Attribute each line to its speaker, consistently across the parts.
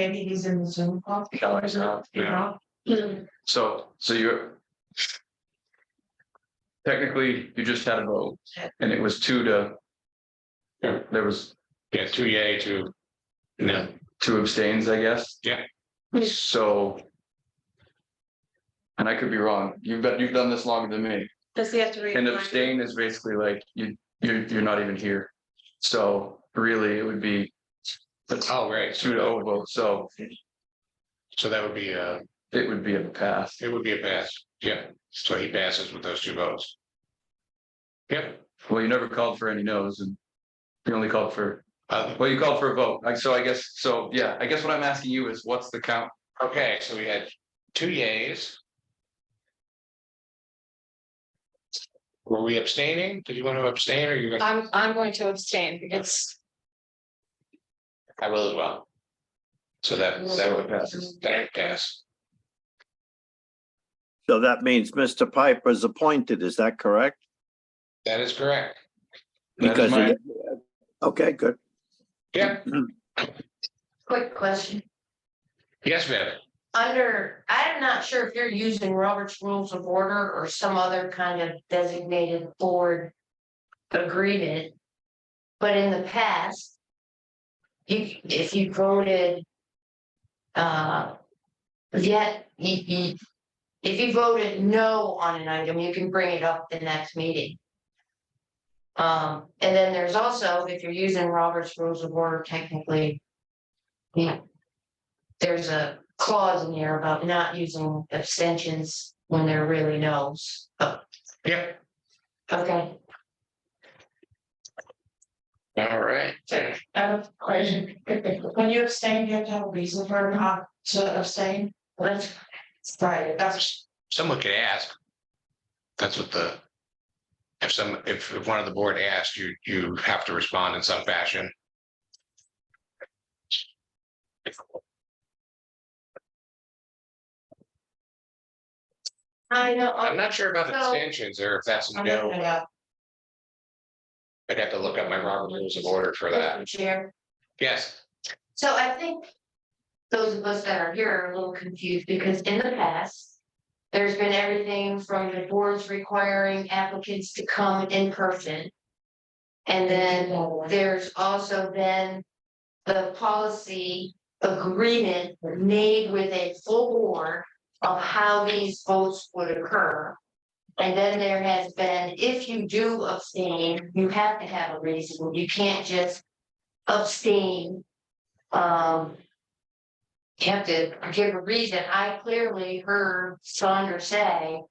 Speaker 1: Maybe he's in the Zoom call.
Speaker 2: No, he's not,
Speaker 1: You
Speaker 2: yeah.
Speaker 1: know?
Speaker 2: So, so you're. Technically, you just had a vote and it was two to.
Speaker 3: Yeah.
Speaker 2: There was
Speaker 3: Yeah, two yay, two. No,
Speaker 2: two abstains, I guess.
Speaker 3: Yeah.
Speaker 2: So. And I could be wrong. You've got, you've done this longer than me.
Speaker 1: Does he have to read?
Speaker 2: And
Speaker 1: mine?
Speaker 2: abstain is basically like you, you, you're not even here. So really, it would be. That's
Speaker 3: oh, right,
Speaker 2: two
Speaker 3: so,
Speaker 2: to oh vote, so
Speaker 3: so that would be, uh,
Speaker 2: it would be a pass.
Speaker 3: it would be a pass, yeah, so he passes with those two votes. Yep,
Speaker 2: Well, you never called for any no's and. You only called for
Speaker 3: uh,
Speaker 2: Well, you called for a vote, like, so I guess, so, yeah, I guess what I'm asking you is, what's the count?
Speaker 3: okay, so we had two yays. Were we abstaining? Did you want to abstain or you?
Speaker 4: I'm, I'm going to abstain. It's,
Speaker 3: I will as well. So that, that would pass, that would pass,
Speaker 5: So that means Mr. Piper is appointed, is that correct?
Speaker 3: that is correct,
Speaker 2: That is
Speaker 5: Because,
Speaker 2: my-
Speaker 5: it- okay, good.
Speaker 3: yeah,
Speaker 1: Quick question.
Speaker 3: yes, Viv,
Speaker 1: Under, I'm not sure if you're using Robert's Rules of Order or some other kind of designated board agreement. But in the past, you, if you voted uh, yet, you- you- if you voted no on an item, you can bring it up the next meeting. Um, and then there's also, if you're using Robert's Rules of Order technically, yeah, there's a clause in here about not using abstentions when there really knows.
Speaker 3: yeah.
Speaker 1: Okay.
Speaker 3: All right,
Speaker 1: I have a question. When you abstain, you have to have a reason for not to abstain. Let's, sorry, that's.
Speaker 3: someone could ask. That's what the. If some, if if one of the board asked, you, you have to respond in some fashion.
Speaker 1: I know.
Speaker 3: I'm not sure about
Speaker 1: So-
Speaker 3: abstentions or if that's a
Speaker 1: I'm
Speaker 3: no,
Speaker 1: looking it up.
Speaker 3: I'd have to look up my Robert rules of order for that.
Speaker 1: Chair.
Speaker 3: Yes,
Speaker 1: So I think those of us that are here are a little confused because in the past, there's been everything from the boards requiring applicants to come in person. And then There's also been the policy agreement made with a full board of how these votes would occur. And then there has been, if you do abstain, you have to have a reason. You can't just abstain. Um. You have to give a reason. I clearly heard Saunders say,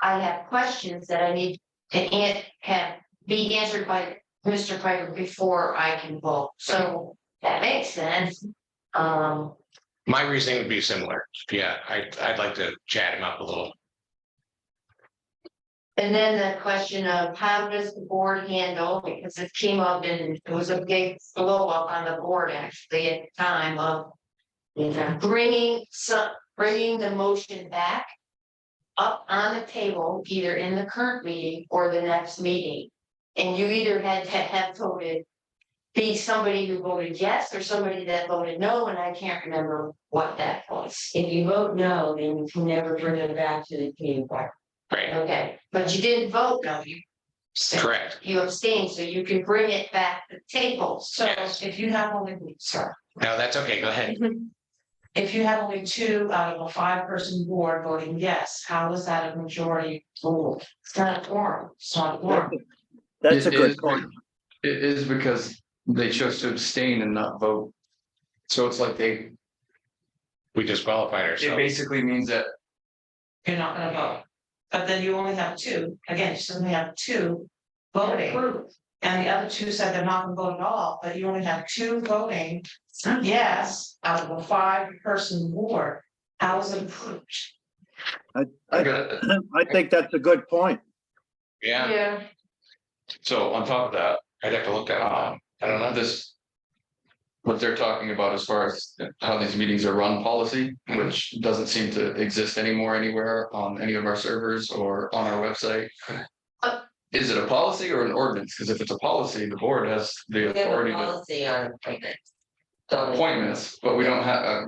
Speaker 1: I have questions that I need to an- have be answered by Mr. Piper before I can vote, so that makes sense. Um,
Speaker 3: my reasoning would be similar. Yeah, I, I'd like to chat him up a little.
Speaker 1: and then the question of how does the board handle, because it came up and it was a big blow up on the board actually at the time of. You know, bringing some, bringing the motion back. Up on the table, either in the current meeting or the next meeting. And you either had to have voted. Be somebody who voted yes or somebody that voted no, and I can't remember what that was.
Speaker 6: If you vote no, then you can never bring it back to the community board.
Speaker 3: Right,
Speaker 1: Okay, but you didn't vote, no, you. abstained.
Speaker 3: correct.
Speaker 1: You abstained, so you can bring it back to the table, so
Speaker 3: Yes.
Speaker 1: if you have only, sorry.
Speaker 3: No, that's okay. Go ahead.
Speaker 6: If you have only two out of a five person board voting yes, how is that a majority rule?
Speaker 1: It's not a quorum.
Speaker 6: It's not a quorum.
Speaker 5: That's a
Speaker 2: It is-
Speaker 5: good point.
Speaker 2: It is because they chose to abstain and not vote. So it's like they,
Speaker 3: We disqualified
Speaker 2: it
Speaker 3: ourselves.
Speaker 2: basically means that,
Speaker 6: You're not gonna vote. But then you only have two, again, you suddenly have two voting. And the other two said they're not gonna vote at all, but you only have two voting yes out of a five person board. How is it approved?
Speaker 2: I got,
Speaker 5: I think that's a good point.
Speaker 3: Yeah,
Speaker 1: Yeah.
Speaker 2: so on top of that,
Speaker 3: I'd have to look that up.
Speaker 2: um, I don't know this. What they're talking about as far as how these meetings are run policy, which doesn't seem to exist anymore anywhere on any of our servers or on our website.
Speaker 1: Uh.
Speaker 2: Is it a policy or an ordinance? Because if it's a policy, the board has the authority to.
Speaker 6: policy on appointment.
Speaker 2: appointments, but we don't have, uh,